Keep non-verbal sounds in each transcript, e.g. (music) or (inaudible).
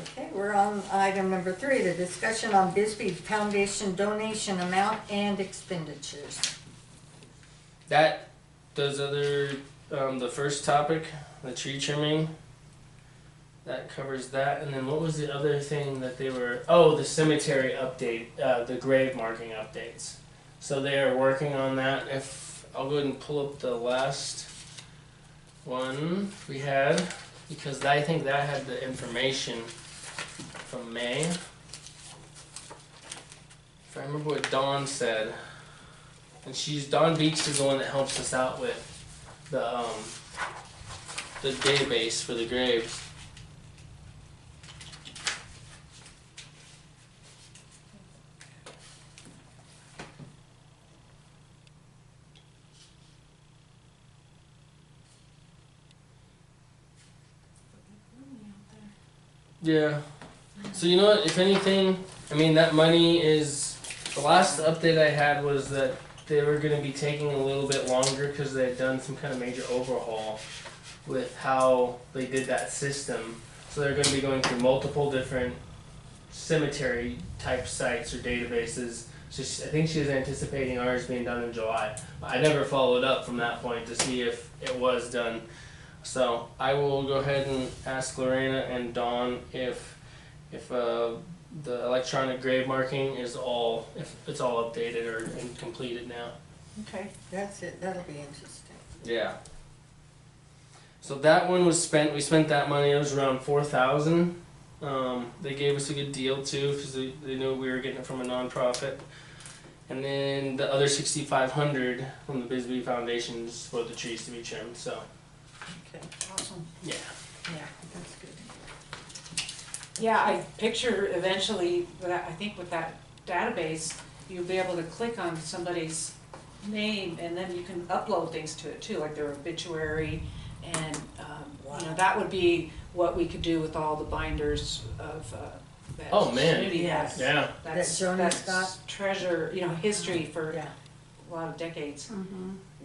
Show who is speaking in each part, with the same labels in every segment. Speaker 1: Okay, we're on item number three, the discussion on Bisbee Foundation donation amount and expenditures.
Speaker 2: That does other um, the first topic, the tree trimming. That covers that, and then what was the other thing that they were? Oh, the cemetery update, uh, the grave marking updates. So they are working on that. If I'll go ahead and pull up the last one we had, because I think that had the information from May. If I remember what Dawn said. And she's Don Beach is the one that helps us out with the um the database for the graves. Yeah. So you know what? If anything, I mean that money is the last update I had was that they were going to be taking a little bit longer because they had done some kind of major overhaul with how they did that system. So they're going to be going through multiple different cemetery type sites or databases. So she, I think she was anticipating ours being done in July. I never followed up from that point to see if it was done. So I will go ahead and ask Lorena and Dawn if if uh, the electronic grave marking is all if it's all updated or and completed now.
Speaker 1: Okay. That's it, that'll be interesting.
Speaker 2: Yeah. So that one was spent. We spent that money. It was around four thousand. Um, they gave us a good deal too because they, they knew we were getting it from a nonprofit. And then the other sixty five hundred from the Bisbee Foundation is for the trees to be trimmed. So
Speaker 1: Okay,
Speaker 3: Awesome.
Speaker 2: yeah,
Speaker 1: yeah, that's good.
Speaker 3: Yeah, I picture eventually, with that- I think with that database, you'll be able to click on somebody's name and then you can upload things to it too, like their obituary. And, um, you know, that would be what we could do with all the binders of, uh, that
Speaker 2: Oh, man.
Speaker 3: community
Speaker 1: Yes.
Speaker 3: has.
Speaker 2: yeah.
Speaker 3: That's,
Speaker 1: That Joan has
Speaker 3: that's treasure, you know, history for
Speaker 1: Yeah.
Speaker 3: a lot of decades. Be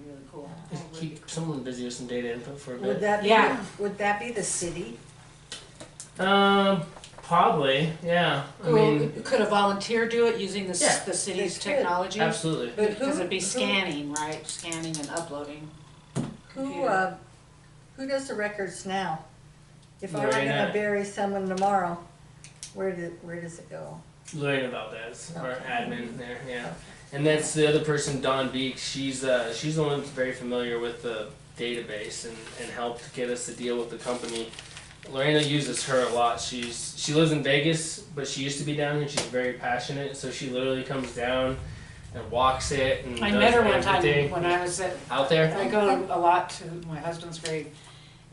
Speaker 3: Really cool.
Speaker 2: Just keep someone busy with some data input for a bit.
Speaker 1: Would that
Speaker 3: Yeah.
Speaker 1: be, would that be the city?
Speaker 2: Um, probably, yeah. I mean,
Speaker 3: Cool. Could a volunteer do it using the,
Speaker 2: Yeah.
Speaker 3: s- the city's
Speaker 1: They could.
Speaker 3: technology?
Speaker 2: absolutely.
Speaker 1: But who-
Speaker 3: Because it'd be
Speaker 1: who-
Speaker 3: scanning, right, scanning and uploading.
Speaker 1: Who,
Speaker 3: Computer.
Speaker 1: uh, who does the records now? If I were
Speaker 2: Lorena.
Speaker 1: gonna bury someone tomorrow, where did, where does it go?
Speaker 2: Lorena Valdez, our
Speaker 1: Okay.
Speaker 2: admin there, yeah. And that's the other person, Dawn Beek. She's uh, she's the one that's very familiar with the database and, and helped get us to deal with the company. Lorena uses her a lot. She's she lives in Vegas, but she used to be down here. She's very passionate, so she literally comes down and walks it and
Speaker 3: I
Speaker 2: does
Speaker 3: met her one
Speaker 2: everything
Speaker 3: time when I was at,
Speaker 2: out there.
Speaker 3: I go a lot to my husband's grave,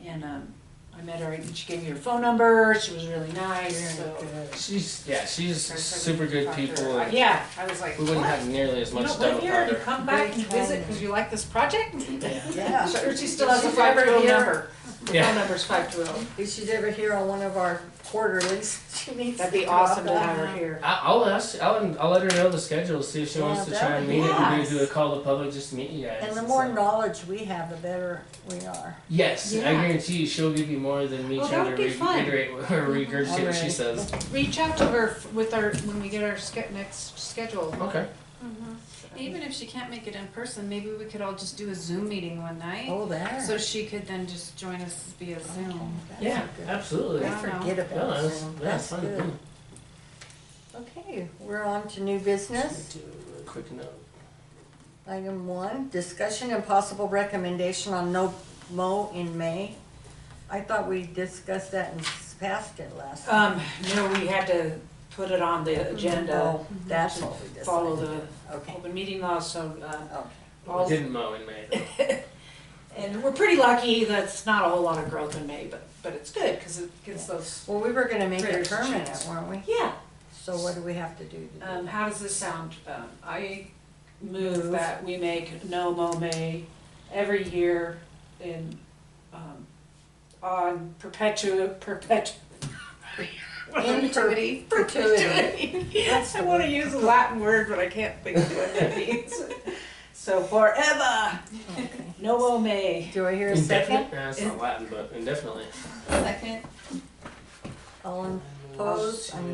Speaker 3: and, um, I met her, and she gave me her phone number, she was really nice, so.
Speaker 2: She's yeah, she's
Speaker 3: Very
Speaker 2: super
Speaker 3: friendly
Speaker 2: good
Speaker 3: to talk to
Speaker 2: people.
Speaker 3: her.
Speaker 2: and
Speaker 3: Yeah, I was like,
Speaker 2: We wouldn't
Speaker 3: "What?
Speaker 2: have nearly as
Speaker 3: You
Speaker 2: much
Speaker 3: don't
Speaker 2: done
Speaker 3: live here, and you
Speaker 2: without her.
Speaker 3: come back and
Speaker 1: Very
Speaker 3: visit because you like this project? (laughs)
Speaker 2: Yeah.
Speaker 1: Yeah.
Speaker 3: Sure, She still has a
Speaker 1: She's never
Speaker 3: five two oh
Speaker 1: here.
Speaker 3: number, her phone
Speaker 2: Yeah.
Speaker 3: number's five two oh,
Speaker 1: If she's ever here on one of our quarterlies, (laughs) she needs to
Speaker 3: that'd be
Speaker 1: come up
Speaker 3: awesome to
Speaker 1: on
Speaker 3: have her
Speaker 1: that.
Speaker 3: here.
Speaker 2: I- I'll ask. I'll, I'll let her know the schedule. See if she wants to
Speaker 1: Yeah,
Speaker 2: try
Speaker 1: that
Speaker 2: and
Speaker 1: would
Speaker 2: meet
Speaker 3: be
Speaker 2: it.
Speaker 3: nice.
Speaker 2: We do a call to public just to meet you guys.
Speaker 1: And the
Speaker 2: It's
Speaker 1: more
Speaker 2: like-
Speaker 1: knowledge we have, the better we are.
Speaker 2: Yes, I
Speaker 3: Yeah.
Speaker 2: guarantee you, she'll give you more than me
Speaker 3: Well, that
Speaker 2: trying to
Speaker 3: would be
Speaker 2: re-
Speaker 3: fun.
Speaker 2: reiterate what- or regurgitate what she
Speaker 1: Alright.
Speaker 2: says.
Speaker 3: Reach out to her f- with our, when we get our ske- next schedule.
Speaker 2: Okay.
Speaker 4: Even if she can't make it in person, maybe we could all just do a Zoom meeting one night.
Speaker 1: Oh, there.
Speaker 4: So she could then just join us via Zoom.
Speaker 1: That's
Speaker 2: Yeah,
Speaker 1: good.
Speaker 2: absolutely.
Speaker 1: I
Speaker 4: Yeah.
Speaker 1: forget
Speaker 2: No,
Speaker 1: about
Speaker 2: that's,
Speaker 1: Zoom.
Speaker 2: that's
Speaker 1: That's
Speaker 2: fun. Hmm. to
Speaker 1: good.
Speaker 2: do.
Speaker 1: Okay, we're on to new business.
Speaker 2: Do a Quick note.
Speaker 1: Item one, discussion and possible recommendation on no mow in May. I thought we discussed that and passed it last.
Speaker 3: Um, no, we had to put it on the agenda,
Speaker 1: Oh, That's what we decided.
Speaker 3: uh, follow the
Speaker 1: Okay,
Speaker 3: open meeting law, so, uh,
Speaker 1: okay.
Speaker 2: We
Speaker 3: all,
Speaker 2: didn't mow in May though.
Speaker 3: (laughs) and we're pretty lucky that's not a whole lot of growth in May, but, but it's good, cause it gets those,
Speaker 1: Well, we were gonna make it
Speaker 3: Critters
Speaker 1: permanent,
Speaker 3: chance.
Speaker 1: weren't we?
Speaker 3: yeah.
Speaker 1: So what do we have to do to do?
Speaker 3: Um,
Speaker 1: that?
Speaker 3: how does this sound? Um, I
Speaker 1: Move.
Speaker 3: move that we make no mow May every year in, um, on perpetua, perpetu. (laughs)
Speaker 4: Perpetuity.
Speaker 1: Perpetuity.
Speaker 3: Yes, I wanna use a Latin word, but I can't think of what that (laughs) means. So forever,
Speaker 1: Okay.
Speaker 3: no mow May.
Speaker 1: Do I hear a second?
Speaker 2: Indefinite? Nah, it's not Latin, but indefinitely.
Speaker 4: Second.
Speaker 1: All in Opposed? I